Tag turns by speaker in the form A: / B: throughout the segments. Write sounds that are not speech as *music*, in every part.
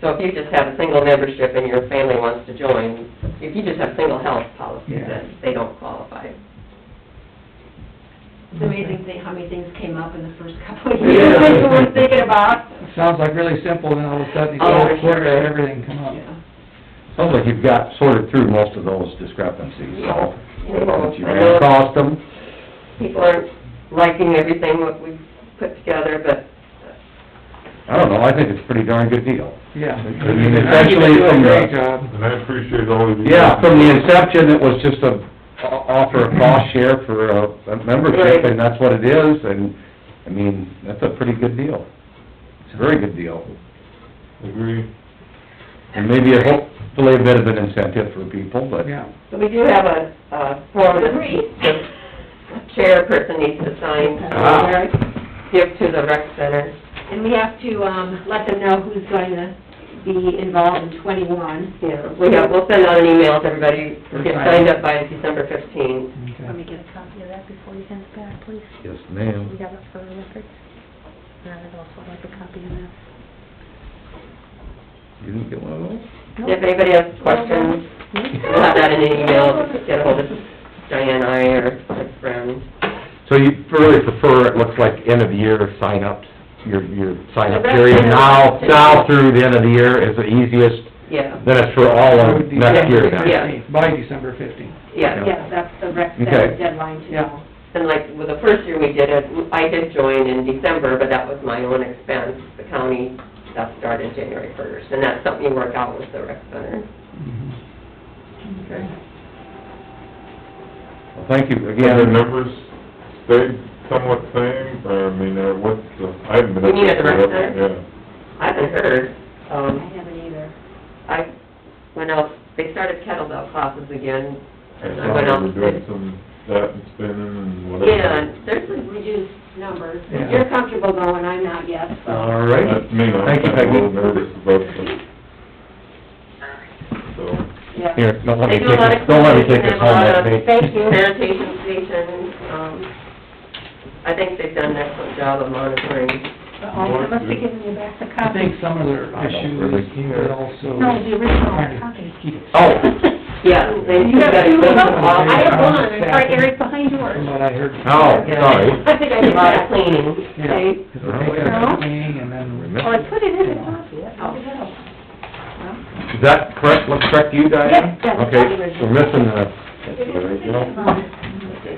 A: So if you just have a single membership and your family wants to join, if you just have single health policies,
B: Yeah.
A: then they don't qualify.
C: It's amazing thing, how many things came up in the first *laughs* couple of
B: Yeah.
C: years that you weren't thinking about.
B: Sounds like really simple, then all of a sudden you go
A: Oh,
B: to court
A: sure.
B: and everything come up.
C: Yeah.
D: Sounds like you've got sorted through most of those discrepancies, so, since you ran across them.
A: People aren't liking everything what we've put together, but
D: I don't know, I think it's a pretty darn good deal.
B: Yeah.
D: I mean, essentially
B: You do a
D: from the-
B: Great job.
E: And I appreciate all of you.
D: Yeah, from the inception, it was just a, o- offer a cost share for a a membership,
A: Right.
D: and that's what it is, and, I mean, that's a pretty good deal. It's a very good deal,
E: Agree.
D: and maybe a- hopefully a bit of an incentive for people, but,
B: Yeah,
A: So we do have a, a form that the chairperson needs to sign,
D: Ah.
A: uh, give to the rec center.
C: And we have to, um, let them know who's going to be involved in twenty-one.
A: Yeah, we have, we'll send out an email to everybody, get signed up by December fifteenth.
F: Let me
B: okay.
F: get a copy of that before you send it back, please.
D: yes,
F: We
D: ma'am.
F: have it for records. And I'd also like a copy of that.
D: You didn't get one of those?
A: If anybody has questions, we'll have that in an email, get ahold of Diane, I, or my friend.
D: So you really prefer, it looks like, end of the year sign-ups, your, your sign-up
A: That's
D: period
A: kind of-
D: now, now through the end of the year is the easiest,
A: Yeah,
D: then it's for all of next year then?
A: Yeah.
B: By December fifteenth.
A: yeah,
C: Yeah, that's the rec
D: Okay.
C: center deadline to
B: Yeah.
C: know.
A: and like, with the first year we did it, I did join in December, but that was my own expense. The county, that started January first, and that's something you work out with the rec center.
D: Well, thank you
E: Have the
D: again.
E: numbers stayed somewhat same, or, I mean, uh, what's the, I haven't been up
A: You mean at the rec
E: there.
A: center?
E: Yeah.
A: I haven't heard,
C: I
A: um,
C: haven't either.
A: I went out, they started kettlebell classes again,
E: I
A: and I went
E: saw
A: out
E: you were
A: and
E: doing
A: did,
E: some, that and spinning and whatever.
A: yeah, and there's
C: This is reduced numbers.
B: Yeah.
C: You're comfortable going, I'm not yet, so.
D: All right.
E: That's me, I'm
D: Thank you,
E: kinda a little
D: Peggy.
E: nervous about this. So,
C: Yeah.
D: Here, don't let
A: They
D: me
A: do a
D: take
A: lot
D: this,
A: of
D: don't let me take
A: cleaning
D: this
A: and a
D: home
A: lot
D: that
A: of-
D: day.
A: Thank you. Sanitation station, um, I think they've done an excellent job of monitoring.
F: I must be giving you back the
B: I
F: copy.
B: think some of their
D: I don't
B: issues
D: really
B: were also.
F: No, the
B: trying
F: original
B: to
F: copy.
B: keep
D: Oh,
A: *laughs* Yeah, they do
F: You have
A: that.
F: two of
B: them?
A: Well,
F: I have one,
B: Yeah.
F: it's right there, it's behind
B: From
F: yours.
B: what I heard.
D: oh, sorry.
A: I think I did a lot of cleaning.
B: Yeah.
A: Okay.
B: They took a cleaning and then,
F: Oh, I
D: Is
F: put it in the
B: Yeah.
F: copy, that's all it is.
D: that correct, looks correct to you, Diane?
F: Yes, yes,
D: Okay,
F: the original.
D: we're missing the, that's the original. Okay.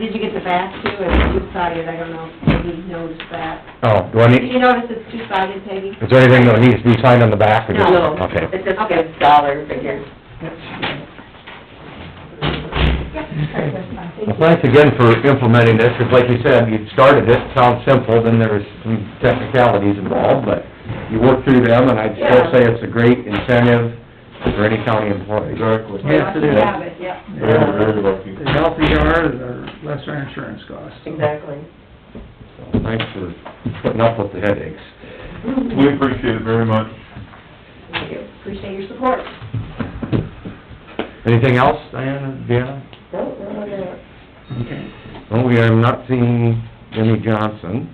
C: Did you get the back too, and you sided, I don't know, if you noticed that.
D: Oh, do I
C: Did
D: need,
C: you notice it's two-sided, Peggy?
D: is there anything that needs to be signed on the back or just?
A: No,
D: Okay.
A: it just gives dollar figures.
D: Well, thanks again for implementing this, because like you said, you started it, sounds simple, then there's some technicalities involved, but you worked through them, and I'd still
A: Yeah.
D: say it's a great incentive for any county employee.
E: exactly.
B: Yes, it
C: You
B: is.
C: have it, yep.
E: Very, very lucky.
B: the healthier you are, the less our insurance costs.
A: Exactly.
F: *laughs*
D: So, Thanks for putting up with the headaches.
E: We appreciate it very much.
C: Thank you. Appreciate your support.
D: Anything else, Diana, Deanna?
A: No, no, no.
B: Okay.
D: Well, we are not seeing Jenny Johnson.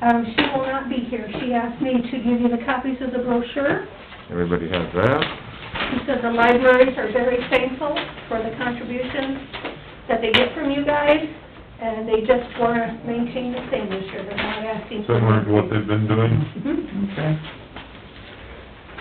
F: Um, she will not be here, she asked me to give you the copies of the brochure.
D: Everybody has that.
F: She said the libraries are very thankful for the contributions that they get from you guys, and they just wanna maintain the same this year, they're not asking. for
E: Similar to what
F: anything.
E: they've been doing.
F: Mhm.
B: Okay.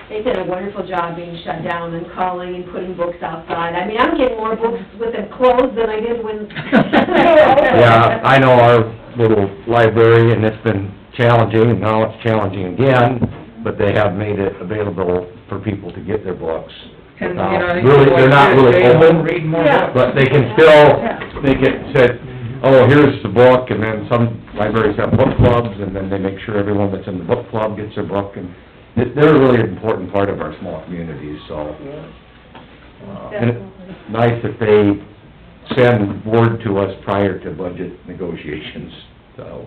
C: They did a wonderful job being shut down and calling and putting books outside. I mean, I'm getting more books with them closed than I did when...
D: Yeah, I know our little library, and it's been challenging, and now it's challenging again, but they have made it available for people to get their books.
B: And, you
D: Now,
B: know, I think
D: Um, Really, they're not really
B: they won't
D: open,
B: Read more
F: Yeah.
B: books.
D: but they can still, they can said, oh, here's the book, and then some libraries have book clubs, and then they make sure everyone that's in the book club gets their book, and they- they're a really important part of our small communities, so. uh, And it's nice that they send word to us prior to budget negotiations, so.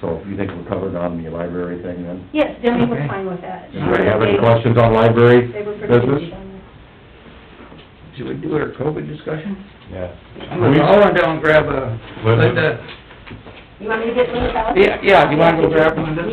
D: So you think we're covered on the library thing then?
F: Yes, Debbie was
B: Okay.
F: fine with that.
D: Anybody have any
F: They-
D: questions on library
F: They were pretty
D: business?
F: good on that.
B: Should we do our COVID discussion?
D: Yeah.
B: I want to down and grab a,
E: Linda?
D: uh,
B: Linda,
C: You want me to get Liz out?
B: yeah, yeah, do you want to go grab one of those?